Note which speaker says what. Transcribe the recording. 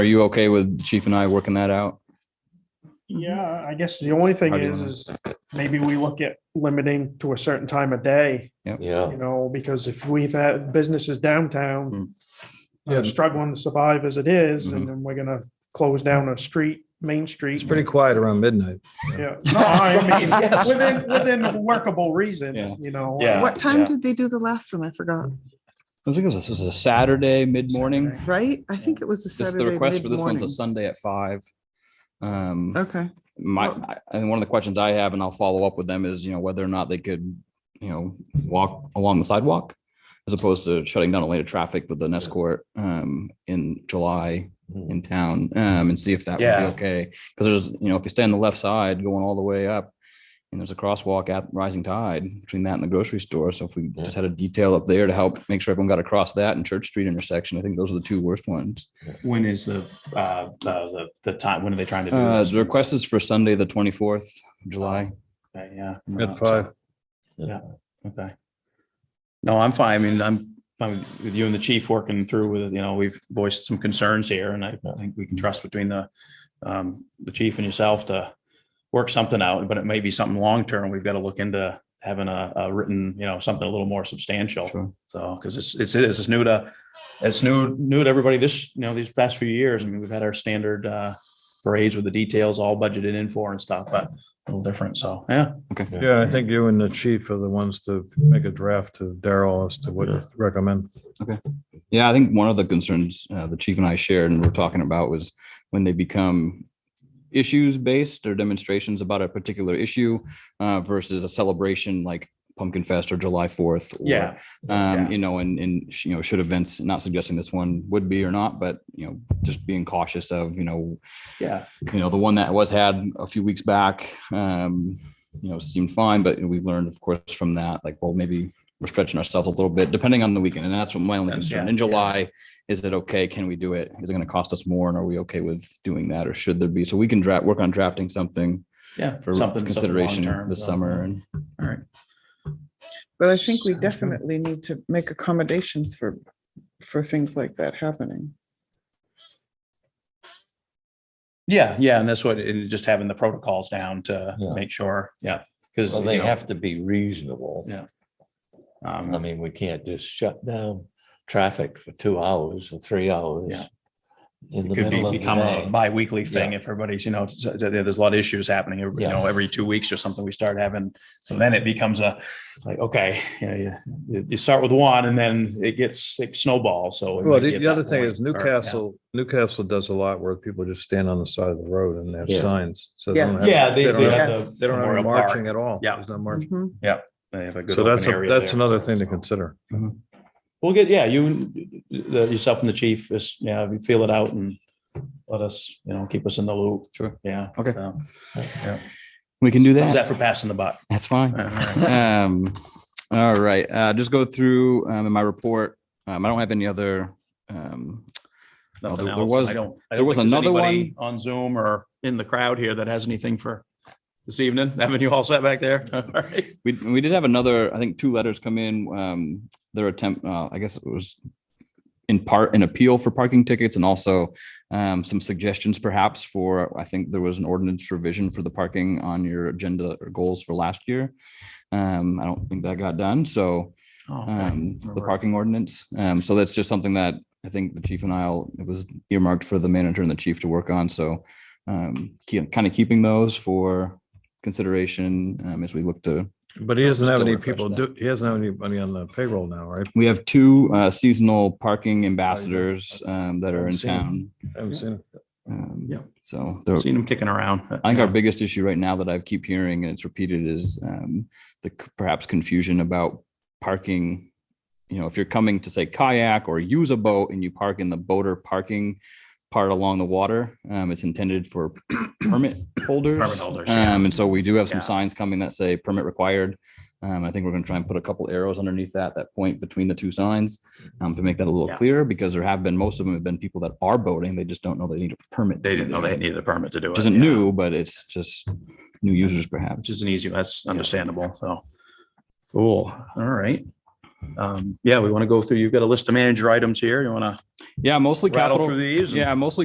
Speaker 1: Are you okay with the Chief and I working that out?
Speaker 2: Yeah, I guess the only thing
Speaker 1: How do you
Speaker 2: is,
Speaker 1: wanna-
Speaker 2: is maybe we look at limiting to a certain time of day,
Speaker 3: Yeah,
Speaker 2: you know, because if we've had businesses
Speaker 1: Mm.
Speaker 2: downtown that
Speaker 4: Yeah.
Speaker 2: are struggling to survive as it is,
Speaker 1: Mm-hmm.
Speaker 2: and then we're gonna close down a street, Main Street.
Speaker 4: It's pretty quiet around midnight.
Speaker 2: Yeah, no, I mean,
Speaker 1: Yes.
Speaker 2: within, within workable reason,
Speaker 1: Yeah.
Speaker 2: you know.
Speaker 3: Yeah,
Speaker 5: What
Speaker 3: yeah.
Speaker 5: time did they do the last one? I forgot,
Speaker 1: I think it was, this was a Saturday, mid-morning.
Speaker 2: Saturday.
Speaker 5: right? I think it was the
Speaker 1: This, the
Speaker 5: Saturday
Speaker 1: request for this one's a
Speaker 5: mid-morning.
Speaker 1: Sunday at five. Um,
Speaker 5: Okay,
Speaker 1: my,
Speaker 5: Well-
Speaker 1: I- and one of the questions I have, and I'll follow up with them is, you know, whether or not they could, you know, walk along the sidewalk as opposed to shutting down a lane of traffic with an escort, um, in July
Speaker 6: Mm-hmm.
Speaker 3: Mhm.
Speaker 1: in town, um, and see if that would
Speaker 3: Yeah.
Speaker 1: be okay. Cause there's, you know, if you stay on the left side going all the way up and there's a crosswalk at Rising Tide between that and the grocery store. So if we
Speaker 3: Yeah.
Speaker 1: just had a detail up there to help make sure everyone got across that and Church Street intersection, I think those are the two worst ones.
Speaker 3: When is the, uh, uh, the, the time, when are they trying to do?
Speaker 1: Uh,
Speaker 3: this?
Speaker 1: the request is for Sunday, the twenty-fourth, July.
Speaker 3: Okay, Yeah. Uh,
Speaker 4: At five.
Speaker 3: Okay. No, I'm fine. I mean, I'm fine with you and the chief working through with, you know, we've voiced some concerns here and I think we can trust between the, um, the chief and yourself to work something out, but it may be something long-term. We've got to look into having a, a written, you know, something a little more
Speaker 1: Sure.
Speaker 3: substantial. So, because it's, it's, it is, it's new to, it's new, new to everybody this, you know, these past few years. I mean, we've had our standard, uh, parades with the details all budgeted in for and stuff, but a little different. So, yeah.
Speaker 4: Yeah, I think you and the chief are the ones to make a draft to Daryl as to what you recommend.
Speaker 1: Yeah, I think one of the concerns uh, the chief and I shared and we're talking about was when they become issues based or demonstrations about a particular issue uh, versus a celebration like Pumpkin Fest or July Fourth.
Speaker 3: Yeah.
Speaker 1: Um,
Speaker 3: Yeah.
Speaker 1: you know, and, and, sh- you know, should events, not suggesting this one would be or not, but, you know, just being cautious of, you know,
Speaker 3: Yeah.
Speaker 1: you know, the one that was had a few weeks back, um, you know, seemed fine, but we've learned, of course, from that, like, well, maybe we're stretching ourselves a little bit, depending on the weekend. And that's what my only
Speaker 3: That's-
Speaker 1: concern.
Speaker 3: yeah,
Speaker 1: In
Speaker 3: yeah.
Speaker 1: July, is it okay? Can we do it? Is it going to cost us more? And are we okay with doing that? Or should there be? So we can draft, work on drafting something
Speaker 3: Yeah,
Speaker 1: for
Speaker 3: something
Speaker 1: consideration
Speaker 3: something long-term,
Speaker 1: this
Speaker 3: so,
Speaker 1: summer. And
Speaker 3: All right.
Speaker 5: but I think we
Speaker 3: Sounds good.
Speaker 5: definitely need to make accommodations for, for things like that happening.
Speaker 3: Yeah, yeah, and that's what, and just having the protocols down to
Speaker 6: Yeah.
Speaker 3: make sure, yeah, because.
Speaker 6: Well, they have to be reasonable.
Speaker 3: Yeah. um,
Speaker 6: I mean, we can't just shut down traffic for two hours or three hours.
Speaker 3: Yeah.
Speaker 6: In the
Speaker 3: Could be,
Speaker 6: middle of
Speaker 3: become a
Speaker 6: the day.
Speaker 3: bi-weekly thing if everybody's, you know, it's- it's- there's a lot of issues happening, every- you
Speaker 6: Yeah.
Speaker 3: know, every two weeks or something, we start having. So then it becomes a, like, okay, you know, you- you, you start with one and then it gets, it snowballs, so. it
Speaker 4: Well,
Speaker 3: might be
Speaker 4: the,
Speaker 3: at
Speaker 4: the other
Speaker 3: that
Speaker 4: thing
Speaker 3: point,
Speaker 4: is
Speaker 3: or- yeah.
Speaker 4: Newcastle, Newcastle does a lot where people just stand on the side of the road and they have
Speaker 6: Yeah.
Speaker 4: signs. So
Speaker 5: Yes.
Speaker 3: Yeah, they,
Speaker 4: They don't
Speaker 3: they
Speaker 4: have
Speaker 3: have the.
Speaker 5: Yes.
Speaker 4: they don't have any
Speaker 3: Memorial Park.
Speaker 4: marching at all.
Speaker 3: Yeah.
Speaker 4: There's no marching.
Speaker 5: Mhm.
Speaker 3: They have a good
Speaker 4: So that's,
Speaker 3: open
Speaker 4: a-
Speaker 3: area
Speaker 4: that's
Speaker 3: there.
Speaker 4: another thing to
Speaker 3: So-
Speaker 4: consider.
Speaker 3: We'll get, yeah, you, and the- yourself and the chief, is, yeah, we feel it out and let us, you know, keep us in the loop.
Speaker 1: Sure.
Speaker 3: Yeah.
Speaker 1: Okay.
Speaker 3: So, yeah.
Speaker 1: we can do
Speaker 3: How's
Speaker 1: that.
Speaker 3: that for passing the buck?
Speaker 1: That's fine.
Speaker 3: All right.
Speaker 1: Um, all right, uh, just go through, um, in my report, um, I don't have any other, um, Well,
Speaker 3: Nothing
Speaker 1: there- there
Speaker 3: else.
Speaker 1: was-
Speaker 3: I don't. I
Speaker 1: there
Speaker 3: don't
Speaker 1: was
Speaker 3: think there's
Speaker 1: another
Speaker 3: anybody On Zoom or in the crowd here that has anything for this evening? Haven't you all sat back there? All right.
Speaker 1: We, we did have another, I think, two letters come in, um, their attempt, uh, I guess it was in part an appeal for parking tickets and also, um, some suggestions perhaps for, I think there was an ordinance revision for the parking on your agenda or goals for last year. Um, I don't think that got done, so,
Speaker 3: Oh, okay.
Speaker 1: um, the
Speaker 3: Remember.
Speaker 1: parking ordinance. Um, so that's just something that I think the chief and I'll, it was earmarked for the manager and the chief to work on, so um, keep, kind of keeping those for consideration, um, as we look to
Speaker 4: But he doesn't have
Speaker 1: Still
Speaker 4: any
Speaker 1: refresh
Speaker 4: people
Speaker 1: that.
Speaker 4: do, he doesn't have anybody on the payroll now, right?
Speaker 1: We have two uh, seasonal parking ambassadors um, that are in
Speaker 4: Seen it.
Speaker 1: town.
Speaker 4: I haven't seen it.
Speaker 1: Um,
Speaker 3: Yeah.
Speaker 1: So they're-
Speaker 3: Seen him kicking around.
Speaker 1: I think our biggest issue right now that I keep hearing and it's repeated is um, the c- perhaps confusion about parking. You know, if you're coming to say kayak or use a boat and you park in the boater parking part along the water, um, it's intended for permit holders.
Speaker 3: Permit holders, yeah.
Speaker 1: Um, and so we do have some
Speaker 3: Yeah.
Speaker 1: signs coming that say permit required. Um, I think we're gonna try and put a couple arrows underneath that, that point between the two signs, um, to make that a little
Speaker 3: Yeah.
Speaker 1: clearer, because there have been, most of them have been people that are boating, they just don't know they need a permit. to
Speaker 3: They
Speaker 1: do
Speaker 3: didn't know
Speaker 1: that
Speaker 3: they needed a permit to do it.
Speaker 1: which isn't
Speaker 3: yeah.
Speaker 1: new, but it's just new users perhaps.
Speaker 3: which is an easy, that's understandable, so. Cool, all right. Um, yeah, we want to go through, you've got a list of manager items here, you want to
Speaker 1: Yeah, mostly
Speaker 3: rattle
Speaker 1: capital.
Speaker 3: through these? and-
Speaker 1: Yeah, mostly